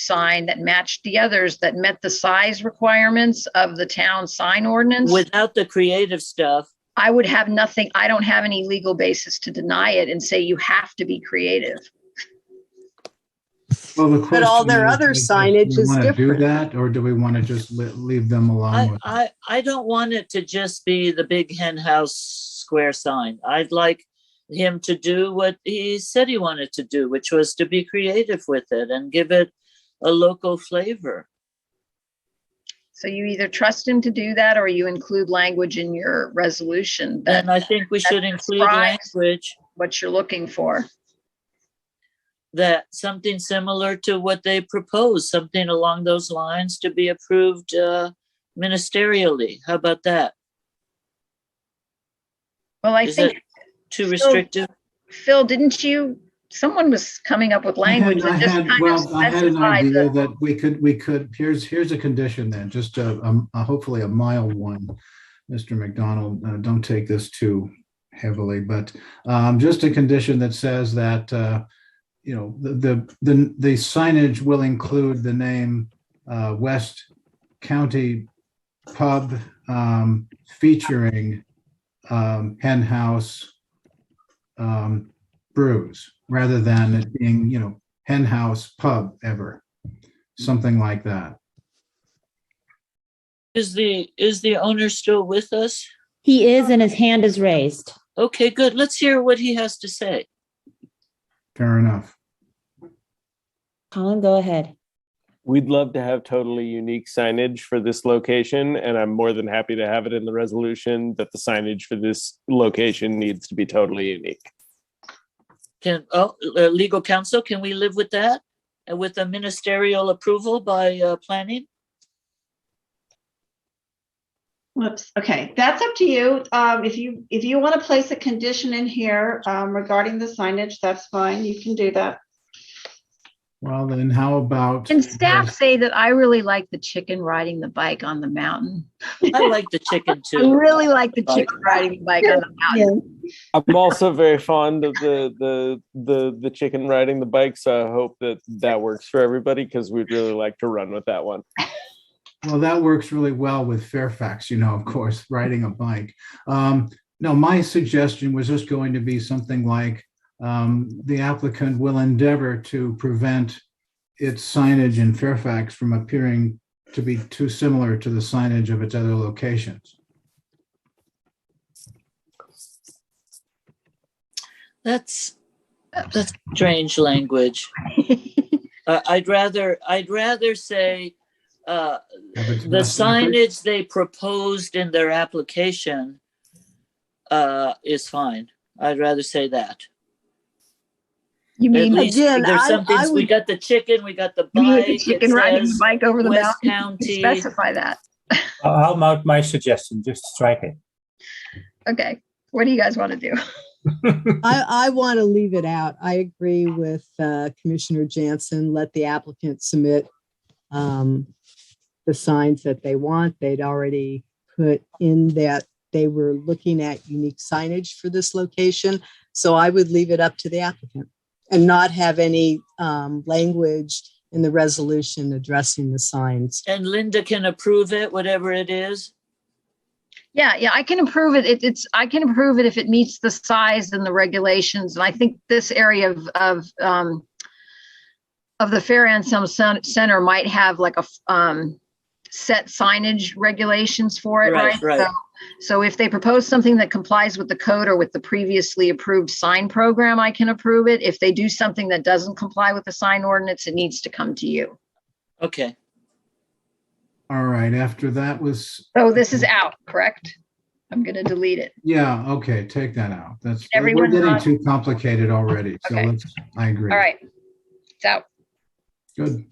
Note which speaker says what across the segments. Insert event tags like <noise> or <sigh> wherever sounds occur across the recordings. Speaker 1: sign that matched the others that met the size requirements of the town sign ordinance.
Speaker 2: without the creative stuff.
Speaker 1: I would have nothing, I don't have any legal basis to deny it and say you have to be creative.
Speaker 3: Well, the
Speaker 4: But all their
Speaker 3: question
Speaker 4: other
Speaker 3: is,
Speaker 4: signage
Speaker 3: do we
Speaker 4: is
Speaker 3: wanna Do
Speaker 4: different.
Speaker 3: that, or do we want to just le- leave them alone?
Speaker 2: I,
Speaker 3: with-
Speaker 2: I, I don't want it to just be the big hen house square sign. I'd like him to do what he said he wanted to do, which was to be creative with it and give it a local flavor.
Speaker 1: So you either trust him to do that or you include language in your resolution that
Speaker 2: And
Speaker 3: uh,
Speaker 2: I think we should
Speaker 1: That's
Speaker 2: include
Speaker 1: right.
Speaker 2: language
Speaker 1: what you're looking for.
Speaker 2: that something similar to what they propose, something along those lines to be approved uh, ministerially. How about that?
Speaker 1: Well, I
Speaker 2: Is
Speaker 1: think,
Speaker 2: Too
Speaker 1: So-
Speaker 2: restrictive?
Speaker 1: Phil, didn't you, someone was coming up with
Speaker 3: I had-
Speaker 1: language
Speaker 3: I
Speaker 1: that just
Speaker 3: had-
Speaker 1: kind of
Speaker 3: well, I had an
Speaker 1: specified
Speaker 3: idea
Speaker 1: the,
Speaker 3: That we could, we could, here's, here's a condition then, just a, a- a- hopefully a mild one. Mr. McDonald, uh, don't take this too heavily, but um, just a condition that says that, uh, you know, the, the, the the signage will include the name uh, West County Pub um, featuring um, Hen House um, brews rather than it being, you know, hen house pub ever, something like that.
Speaker 2: Is the, is the owner still with us?
Speaker 5: He is and his hand is raised.
Speaker 2: Okay, good. Let's hear what he has to say.
Speaker 3: Fair enough.
Speaker 5: Colin, go ahead.
Speaker 6: We'd love to have totally unique signage for this location, and I'm more than happy to have it in the resolution that the signage for this location needs to be totally unique.
Speaker 2: Can, oh, uh, legal counsel, can we live with that? And with a ministerial approval by uh, planning?
Speaker 7: Whoops, okay, that's up to you. Um, if you, if you want to place a condition in here, um, regarding the signage, that's fine, you can do that.
Speaker 3: Well, then how about?
Speaker 1: can staff say that I really like the chicken riding the bike on the mountain?
Speaker 2: I like the chicken
Speaker 1: I
Speaker 2: too.
Speaker 1: really like the chicken riding the bike on the mountain.
Speaker 6: I'm also very fond of the the the the chicken riding the bike, so I hope that that works for everybody because we'd really like to run with that one.
Speaker 3: Well, that works really well with Fairfax, you know, of course, riding a bike. Um, no, my suggestion was just going to be something like, um, the applicant will endeavor to prevent its signage in Fairfax from appearing to be too similar to the signage of its other locations.
Speaker 2: That's, that's strange language. Uh, I'd rather, I'd rather say, uh,
Speaker 3: Have its
Speaker 2: the
Speaker 3: best interest.
Speaker 2: signage they proposed in their application uh, is fine. I'd rather say that.
Speaker 1: You
Speaker 2: At
Speaker 1: mean,
Speaker 2: least
Speaker 4: again,
Speaker 2: there's
Speaker 4: I-
Speaker 2: something,
Speaker 4: I
Speaker 2: we
Speaker 4: would-
Speaker 2: got the chicken, we got the
Speaker 1: <laughs> you mean
Speaker 2: bike.
Speaker 1: the
Speaker 2: it
Speaker 1: chicken riding the
Speaker 2: says
Speaker 1: bike over the
Speaker 2: West
Speaker 1: mountain?
Speaker 2: County.
Speaker 1: Specify that.
Speaker 8: I'll I'll mount my suggestion, just strike it.
Speaker 1: Okay, what do you guys want to do?
Speaker 8: <laughs>
Speaker 4: I, I want to leave it out. I agree with uh, Commissioner Jansen. Let the applicant submit um, the signs that they want. They'd already put in that they were looking at unique signage for this location. So I would leave it up to the applicant and not have any um, language in the resolution addressing the signs.
Speaker 2: And Linda can approve it, whatever it is.
Speaker 1: Yeah, yeah, I can improve it. It, it's, I can improve it if it meets the size and the regulations. And I think this area of, of, um, of the Fair Anselm Cen- Center might have like a, f- um, set signage regulations for it,
Speaker 2: Right,
Speaker 1: right?
Speaker 2: right.
Speaker 1: So- So if they propose something that complies with the code or with the previously approved sign program, I can approve it. If they do something that doesn't comply with the sign ordinance, it needs to come to you.
Speaker 2: Okay,
Speaker 3: All right, after that was,
Speaker 1: So Oh, this is out, correct? I'm gonna delete it.
Speaker 3: Yeah, okay, take that out. That's, we're
Speaker 1: Everyone
Speaker 3: getting
Speaker 1: not-
Speaker 3: too complicated already, so
Speaker 1: Okay.
Speaker 3: let's, I agree.
Speaker 1: All right. It's out.
Speaker 3: Good.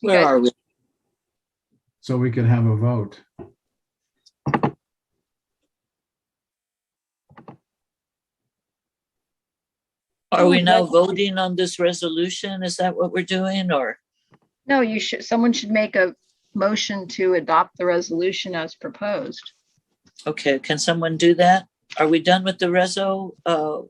Speaker 1: You
Speaker 2: where
Speaker 1: guys-
Speaker 2: are we?
Speaker 3: So we could have a vote.
Speaker 2: Are
Speaker 1: Oh,
Speaker 2: we now voting on this resolution? Is that what we're doing or?
Speaker 1: No, you should, someone should make a motion to adopt the resolution as proposed.
Speaker 2: Okay, can someone do that? Are we done with the reso? Uh,